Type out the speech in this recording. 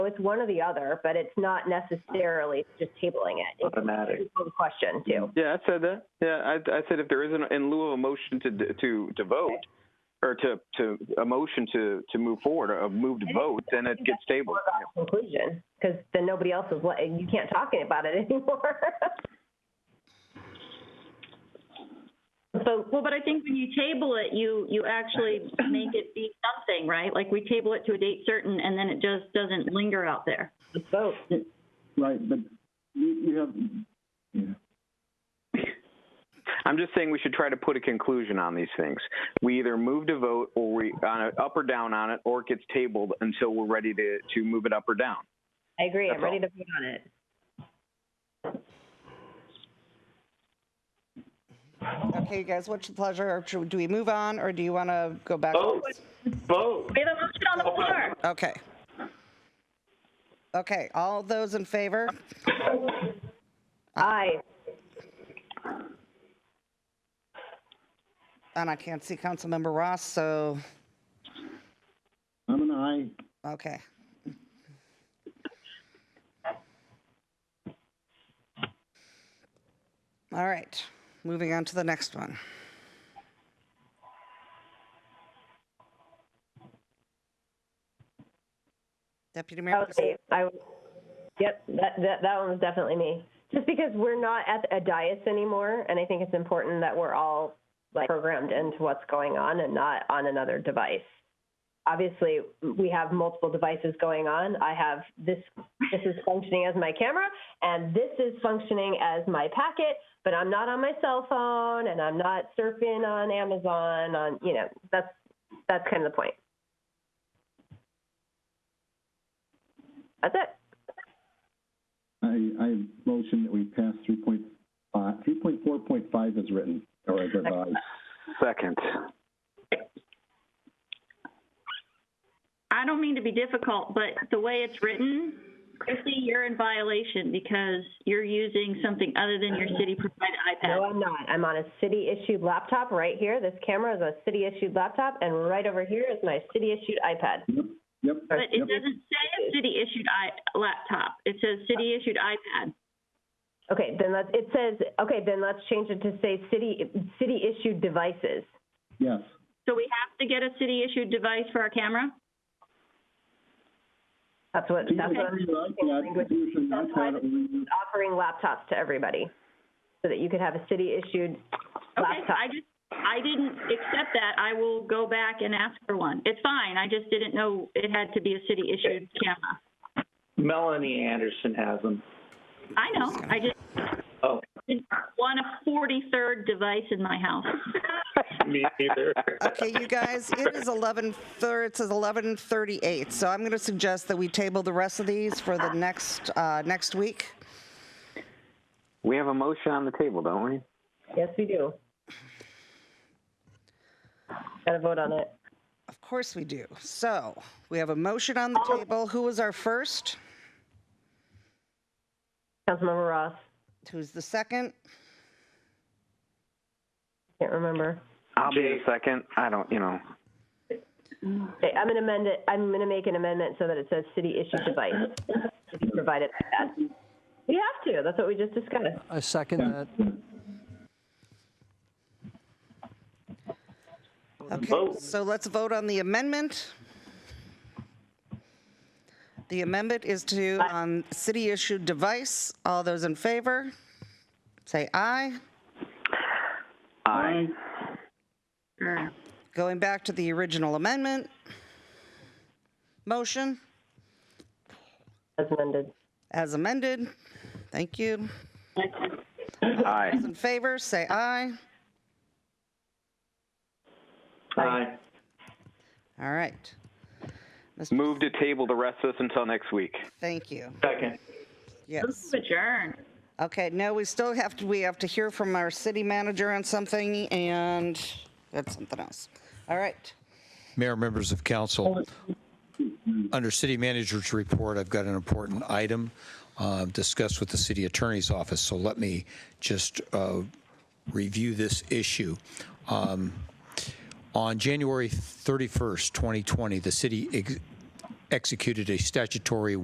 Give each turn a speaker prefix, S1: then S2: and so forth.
S1: It's one or the other, but it's not necessarily just tabling it. It's
S2: automatic.
S1: a question too.
S3: Yeah, I said that. Yeah, I, I said if there isn't, in lieu of a motion to, to, to vote, or to, to, a motion to, to move forward, a move to vote, then it gets tabled.
S1: Conclusion, because then nobody else is, li- you can't talk about it anymore. So,
S4: Well, but I think when you table it, you, you actually make it be something, right? Like, we table it to a date certain, and then it just doesn't linger out there.
S1: let's vote.
S5: Right, but you, you have,
S3: I'm just saying we should try to put a conclusion on these things. We either move to vote or we, on it, up or down on it, or it gets tabled until we're ready to, to move it up or down.
S1: I agree. I'm
S3: That's
S1: ready to vote on it.
S6: Okay, you guys, what's your pleasure? Should- Do we move on or do you want to go back?
S2: Vote, vote.
S4: We have a motion on the floor.
S6: Okay. Okay, all those in favor?
S1: Aye.
S6: And I can't see Councilmember Ross, so,
S5: I'm an aye.
S6: okay. All right, moving on to the next one. Deputy Mayor.
S1: That was me. I, yep, that, that, that one was definitely me. Just because we're not at a dais anymore, and I think it's important that we're all like programmed into what's going on and not on another device. Obviously, we have multiple devices going on. I have this, this is functioning as my camera, and this is functioning as my packet, but I'm not on my cell phone, and I'm not surfing on Amazon, on, you know, that's, that's kind of the point. That's it.
S5: I, I motion that we pass three point five, three point four point five is written, or as revised.
S3: Second.
S4: I don't mean to be difficult, but the way it's written, Christie, you're in violation because you're using something other than your city-provided
S1: No,
S4: iPad.
S1: I'm not. I'm on a city-issued laptop right here. This camera is a city-issued laptop, and right over here is my city-issued iPad.
S5: Yep, yep,
S4: But it
S5: yep.
S4: doesn't say a city-issued i, laptop. It says city-issued iPad.
S1: Okay, then let's, it says, okay, then let's change it to say city, city-issued devices.
S5: Yes,
S4: So we have to get a city-issued device for our camera?
S1: That's what,
S5: Can you
S1: that's what
S5: show
S1: I'm
S5: your iPad,
S1: language.
S5: Can you show your
S1: That's why
S5: iPad
S1: this
S5: or your-
S1: offering laptops to everybody, so that you could have a city-issued
S4: Okay,
S1: laptop.
S4: I just, I didn't accept that. I will go back and ask for one. It's fine. I just didn't know it had to be a city-issued camera.
S2: Melanie Anderson has them.
S4: I know, I just
S2: Oh,
S4: didn't want a 43rd device in my house.
S2: me either.
S6: Okay, you guys, it is 11, thir- it says 11:38, so I'm going to suggest that we table the rest of these for the next, uh, next week.
S3: We have a motion on the table, don't we?
S1: Yes, we do. Got to vote on it.
S6: Of course we do. So we have a motion on the table. Who was our first?
S1: Councilmember Ross,
S6: Who's the second?
S1: can't remember.
S3: I'll be the second. I don't, you know.
S1: Okay, I'm gonna amend it, I'm gonna make an amendment so that it says city issued device, city provided iPad. We have to, that's what we just discussed.
S7: I second that.
S6: Okay,
S2: Vote.
S6: so let's vote on the amendment. The amendment is to, on city-issued device. All those in favor? Say aye.
S3: Aye.
S4: Sure.
S6: Going back to the original amendment. Motion
S1: As amended.
S6: as amended. Thank you.
S3: Aye.
S6: Those in favor, say aye.
S2: Aye.
S6: All right. Mr.
S3: Move to table the rest of this until next week.
S6: Thank you.
S2: Second.
S6: Yes.
S4: Adjourn.
S6: Okay, no, we still have to, we have to hear from our city manager on something, and that's something else. All right.
S8: Mayor, members of council, under city manager's report, I've got an important item uh, discussed with the city attorney's office, so let me just uh, review this issue. Um, On January 31st, 2020, the city ex- executed a statutory